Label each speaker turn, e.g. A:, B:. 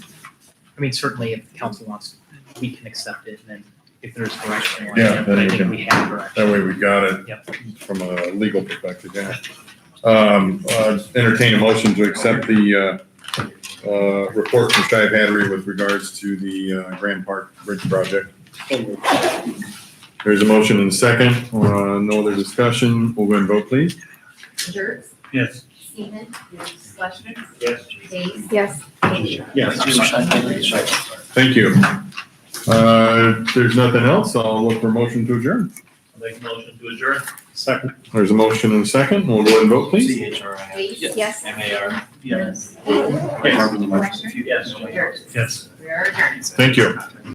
A: I mean, certainly if the council wants, we can accept it, and then if there's direction. on
B: Yeah,
A: it,
B: then
A: I
B: we
A: think
B: can-
A: We have direction.
B: That way we got it from a legal perspective, yeah. Um, uh, entertain a motion to accept the, uh, uh, report from Shive Hattery with regards to the, uh, Grand Park Bridge project. There's a motion and a second, uh, no other discussion, we'll go and vote, please.
C: Jerks?
D: Yes.
C: Seaman? Yes. Fleishman?
D: Yes.
C: Days?
E: Yes.
C: Yes.
B: Thank you. Uh, if there's nothing else, I'll look for a motion to adjourn.
D: Make a motion to adjourn.
A: Second.
B: There's a motion and a second, we'll go and vote, please.
C: Days?
E: Yes.
F: M A R.
C: Yes.
D: Yes.
C: Fleishman?
D: Yes.
C: Jerks?
D: Yes.
C: We are adjourned.
B: Thank you.